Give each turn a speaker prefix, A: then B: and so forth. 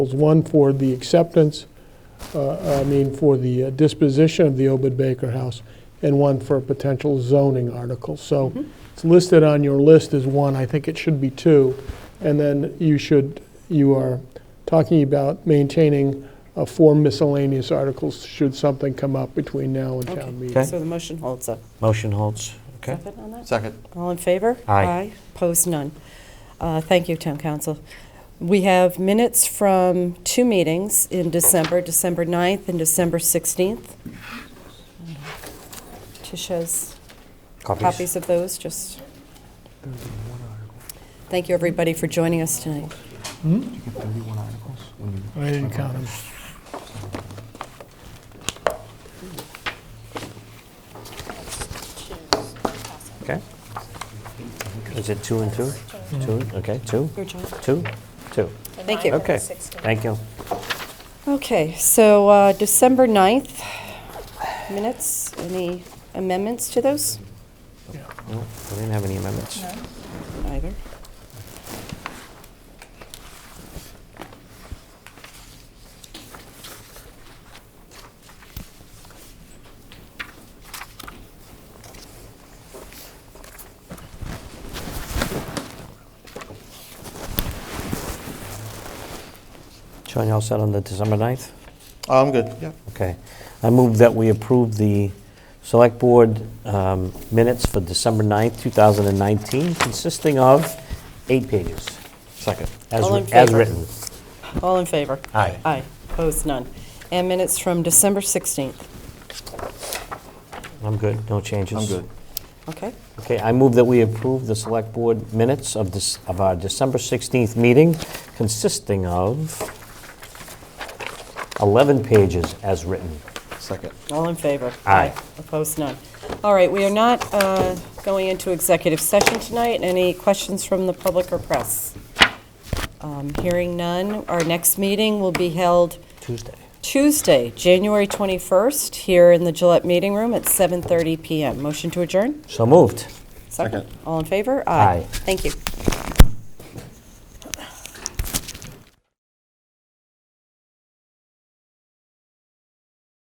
A: Proposals, One for the acceptance, uh, I mean, for the uh, disposition of the Obed Baker House, and one for a potential zoning article. So
B: Mm-hmm.
A: it's listed on your list as one, I think it should be two. And then you should, you are talking about maintaining uh, four miscellaneous articles should something come up between now and town meeting.
B: So the motion holds up.
C: Motion holds. Okay.
B: Second on that?
D: Second.
B: All in favor?
C: Aye.
B: Opposed, none. Uh, Thank you, Town Council. We have minutes from two meetings in December, December 9th and December 16th. Tish has copies of those, just. Thank you, everybody, for joining us tonight.
A: I didn't count them.
C: Okay. Is it two and two? Two, and- okay, two,
B: Your turn.
C: two, two.
B: Thank you.
C: Okay, thank you.
B: Okay, so uh, December 9th minutes, any amendments to those?
C: No, I didn't have any amendments.
B: Either.
C: Sean, you all set on the December 9th?
D: Oh, I'm good, yeah.
C: Okay. I move that we approve the Select Board um, minutes for December 9th, 2019, consisting of eight pages,
D: Second.
C: as
B: All in
C: writ- as
B: favor?
C: written.
B: All in favor?
C: Aye.
B: Aye, opposed, none. And minutes from December 16th.
C: I'm good, no changes.
D: I'm good.
B: Okay,
C: Okay, I move that we approve the Select Board minutes of this, of our December 16th meeting, consisting of 11 pages as written.
D: Second.
B: all in favor?
C: Aye.
B: Opposed, none. All right, we are not uh, going into executive session tonight. Any questions from the public or press? Um, Hearing none. Our next meeting will be held
C: Tuesday.
B: Tuesday, January 21st, here in the Gillette Meeting Room at 7:30 PM. Motion to adjourn?
C: So moved.
D: Second.
B: All in favor?
C: Aye.
B: Thank you.